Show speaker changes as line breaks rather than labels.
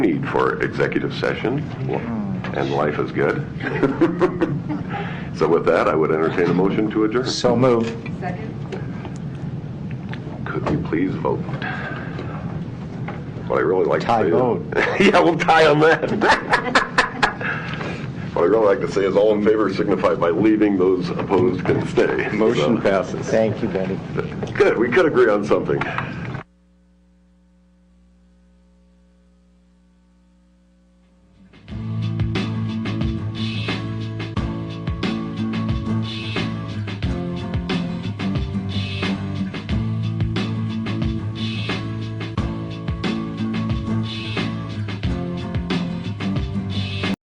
need for executive session, and life is good. So with that, I would entertain a motion to adjourn.
So moved.
Could we please vote? What I really like to
Tie
say is...
vote.
Yeah, we'll tie on that. What I really like to say is all in favor signify by leaving, those opposed can stay.
passes. Thank you, Betty.
So, Good, we could agree on something.